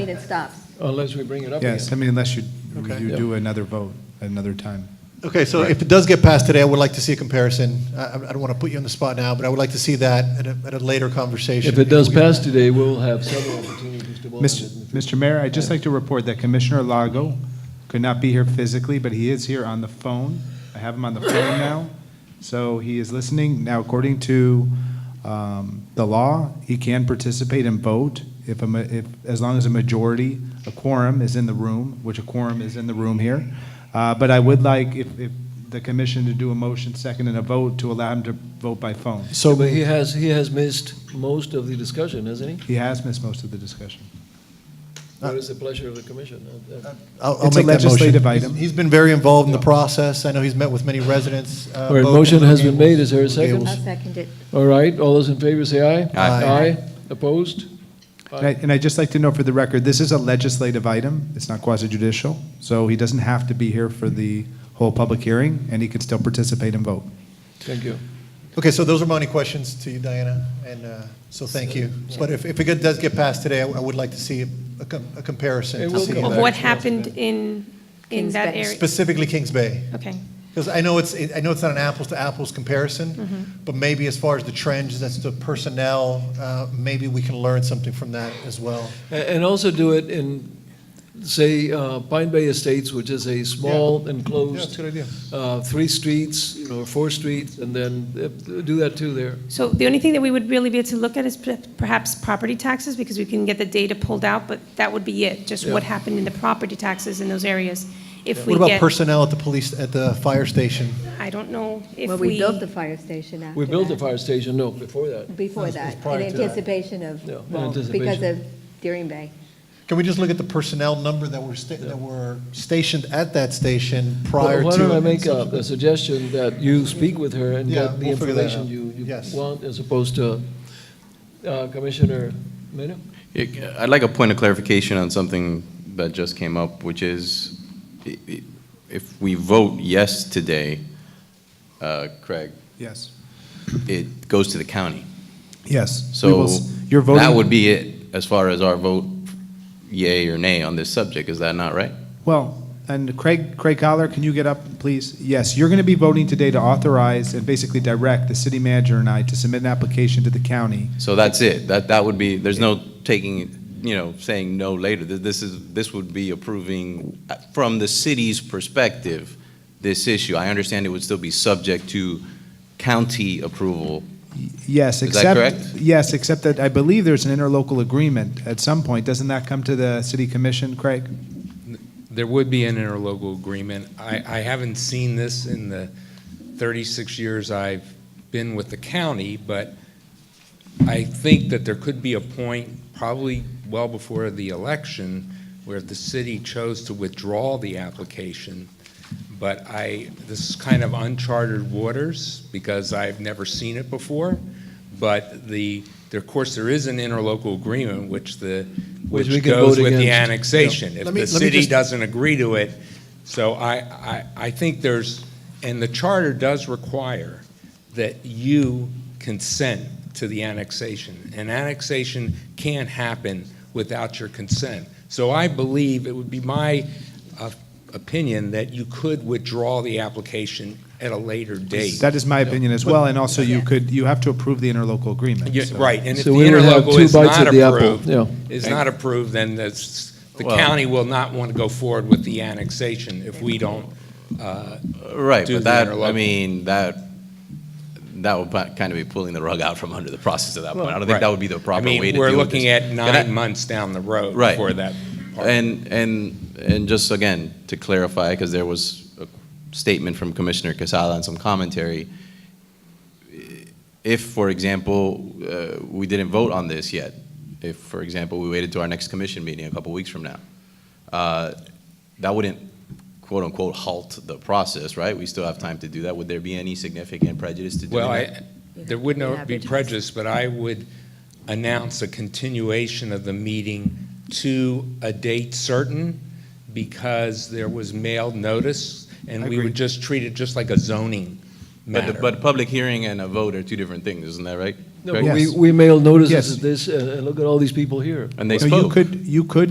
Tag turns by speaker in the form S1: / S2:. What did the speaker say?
S1: it stops.
S2: Unless we bring it up again.
S3: Yes, I mean, unless you,
S4: Okay.
S3: you
S2: Yeah.
S3: do another vote, another time.
S4: Okay, so if it does get passed today, I would like to see a comparison. I, I I don't want to put you on the spot now, but I would like to see that at a, at a later conversation.
S2: If it does pass today, we'll have several opportunities to vote on it.
S3: Mr. Mr. Mayor, I'd just like to report that Commissioner Lago could not be here physically, but he is here on the phone. I have him on the phone now, so he is listening. Now, according to um, the law, he can participate and vote if, a ma- if, as long as a majority, a quorum is in the room, which a quorum is in the room here. Uh, But I would like, if, if the commission to do a motion second and a vote to allow him to vote by phone.
S2: So, but he has, he has missed most of the discussion, hasn't he?
S3: He has missed most of the discussion.
S2: What is the pleasure of the commission? Uh, uh,
S4: I'll, I'll
S3: It's a
S4: make that motion.
S3: legislative item.
S4: He's been very involved in the process. I know he's met with many residents. uh,
S2: All right,
S4: both
S2: motion
S4: in
S2: has been
S4: Gables-
S2: made. Is there a second?
S4: Gables.
S1: I'll second it.
S2: All right, all those in favor say uh, aye.
S4: Aye.
S2: Aye, opposed?
S3: And I- And I'd just like to know for the record, this is a legislative item, it's not quasi-judicial, so he doesn't have to be here for the whole public hearing, and he can still participate and vote.
S2: Thank you.
S4: Okay, so those are my only questions to you, Diana, and uh, so thank you. But if, if it get- does get passed today, I I would like to see a com- a comparison.
S2: It
S4: to
S2: will
S4: see
S2: come
S4: that-
S2: back.
S5: Of what happened in, in
S1: Kings
S5: that
S1: Bay.
S5: area?
S4: Specifically Kings Bay.
S5: Okay.
S4: Because I know it's, I know it's not an apples-to-apples
S5: Mm-hmm.
S4: comparison, but maybe as far as the trends, that's the personnel, uh, maybe we can learn something from that as well.
S2: A- And also do it in, say, uh, Pine Bay Estates, which is a small enclosed,
S4: good idea.
S2: uh, three streets, you know, or four streets, and then uh, do that too there.
S5: So the only thing that we would really be able to look at is per- perhaps property taxes, because we can get the data pulled out, but that would be it, just what
S2: Yeah.
S5: happened in the property taxes in those areas. If we
S4: What about
S5: get,
S4: personnel at the police, at the fire station?
S5: I don't know if
S1: Well, we
S5: we,
S1: built the fire station after
S2: We built the
S1: that.
S2: fire station, no, before that.
S1: Before that,
S2: prior
S1: in
S2: to that.
S1: anticipation of,
S2: Yeah, in
S1: well, because
S2: anticipation.
S1: of Deering Bay.
S4: Can we just look at the personnel number that were, sta- that were stationed at that station prior to?
S2: Why don't I make a, a suggestion that you speak with her and
S4: Yeah,
S2: get the
S4: we'll figure that
S2: information you,
S4: out.
S2: you
S4: Yes.
S2: want, as opposed to uh, Commissioner Mena?
S6: Yeah, I'd like a point of clarification on something that just came up, which is, i- i- if we vote yes today, uh, Craig,
S3: Yes.
S6: it goes to the county.
S3: Yes. We will
S6: So
S3: s- You're
S6: that would
S3: voting,
S6: be it as far as our vote yay or nay on this subject, is that not right?
S3: well, and Craig, Craig Collar, can you get up, please? Yes, you're going to be voting today to authorize and basically direct the city manager and I to submit an application to the county.
S6: So that's it, that, that would be, there's no taking, you know, saying no later. Th- This is, this would be approving, uh, from the city's perspective, this issue. I understand it would still be subject to county approval
S3: Yes,
S6: Is
S3: except.
S6: that
S3: Yes, except that I believe there's an interlocal agreement at some point. Doesn't that come to the city commission, Craig?
S7: There would be an interlocal agreement. I, I haven't seen this in the 36 years I've been with the county, but I think that there could be a point, probably well before the election, where the city chose to withdraw the application. But I, this is kind of uncharted waters, because I've never seen it before. But the, there- of course, there is an interlocal agreement, which the,
S2: Which
S7: which
S2: we can
S7: goes
S2: vote
S7: with the
S2: against.
S7: annexation. If
S4: Let me-
S7: the
S4: let me
S7: city
S4: just-
S7: doesn't agree to it, so I, I, I think there's, and the charter does require that you consent to the annexation. And annexation can't happen without your consent. So I believe, it would be my uh, opinion, that you could withdraw the application at a later date.
S3: That is my opinion as well, and also you could, you have to approve the interlocal agreement.
S7: Yeah,
S3: so-
S7: Right, and if the
S2: So we would have
S7: interlocal
S2: two
S7: is
S2: bites
S7: not
S2: at the apple,
S7: approved,
S2: yeah.
S7: is not approved, then that's, the
S6: Well-
S7: county will not want to go forward with the annexation if we don't uh,
S6: Right,
S7: do
S6: but
S7: the
S6: that, I
S7: interlocal.
S6: mean, that, that would pa- kind of be pulling the rug out from under the process at that point. I don't think that would be the proper way to
S7: I mean,
S6: do
S7: we're
S6: this.
S7: looking at
S6: And I-
S7: nine months down the road
S6: Right.
S7: for that part.
S6: And, and, and just again, to clarify, because there was a statement from Commissioner Casada and some commentary. If, for example, uh, we didn't vote on this yet, if, for example, we waited to our next commission meeting a couple weeks from now, uh, that wouldn't quote-unquote halt the process, right? We still have time to do that. Would there be any significant prejudice to doing
S7: Well,
S6: that?
S7: I, there would not be
S1: Advertise.
S7: prejudice, but I would announce a continuation of the meeting to a date certain because there was mailed notice, and
S3: I
S7: we
S3: agree.
S7: would just treat it just like a zoning
S6: But, the-
S7: matter.
S6: but public hearing and a vote are two different things, isn't that right?
S2: No,
S6: Correct?
S2: but we,
S3: Yes.
S2: we mailed notices
S3: Yes.
S2: of this, and and look uh, at all these people here.
S6: And they
S3: So you
S6: spoke.
S3: could, you could